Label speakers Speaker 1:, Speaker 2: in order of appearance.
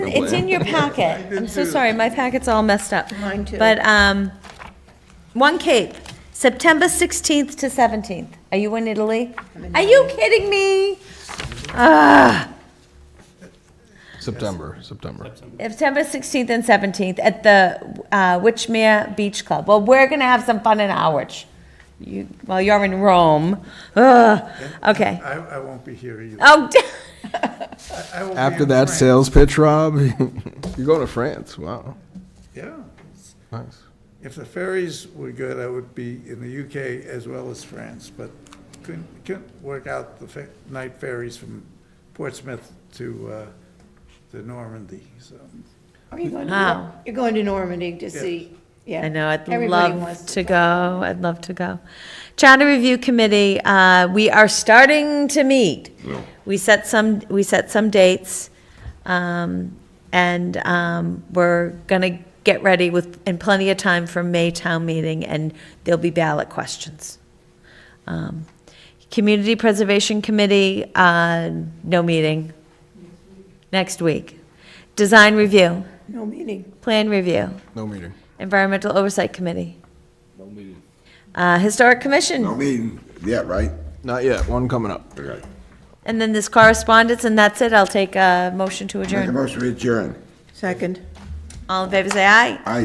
Speaker 1: the
Speaker 2: it's in
Speaker 1: plan.
Speaker 2: your packet. I'm so sorry, my packet's all messed up.
Speaker 3: Mine too.
Speaker 2: But, um, One Cape, September 16th to 17th. Are you in Italy? Are you kidding me?
Speaker 1: September, September.
Speaker 2: September 16th and 17th at the uh, Witchmere Beach Club. Well, we're going to have some fun in Harwich. You, well, you're in Rome. Ugh. Okay.
Speaker 4: I, I won't be here either.
Speaker 2: Oh,
Speaker 4: I will be
Speaker 1: After
Speaker 4: in
Speaker 1: that
Speaker 4: France.
Speaker 1: sales pitch, Rob, you're going to France. Wow,
Speaker 4: Yeah.
Speaker 1: nice.
Speaker 4: If the ferries were good, I would be in the UK as well as France, but couldn't, couldn't work out the fe- night ferries from Portsmouth to, uh, to Normandy, so.
Speaker 3: Are you going to,
Speaker 2: Wow.
Speaker 3: Nor- you're going to Normandy to see, yeah.
Speaker 2: Ah. I know, I'd
Speaker 3: Everybody wants
Speaker 2: love to go, I'd love to go. Charter Review Committee, uh, we are starting to meet. We set some, we set some dates, um, and, um, we're gonna get ready with, in plenty of time for May town meeting, and there'll be ballot questions. Um, Community Preservation Committee, uh, no meeting, next week. Design Review,
Speaker 3: No meeting.
Speaker 2: Plan Review.
Speaker 1: No meeting.
Speaker 2: Environmental Oversight Committee. Uh, Historic
Speaker 5: No
Speaker 2: Commission,
Speaker 5: meeting yet, right?
Speaker 1: Not yet. One coming up.
Speaker 5: Okay.
Speaker 2: and then this correspondence, and that's it. I'll take a motion to
Speaker 5: Make a
Speaker 2: adjourn.
Speaker 5: motion to adjourn.
Speaker 3: Second.
Speaker 2: All in favor, say aye.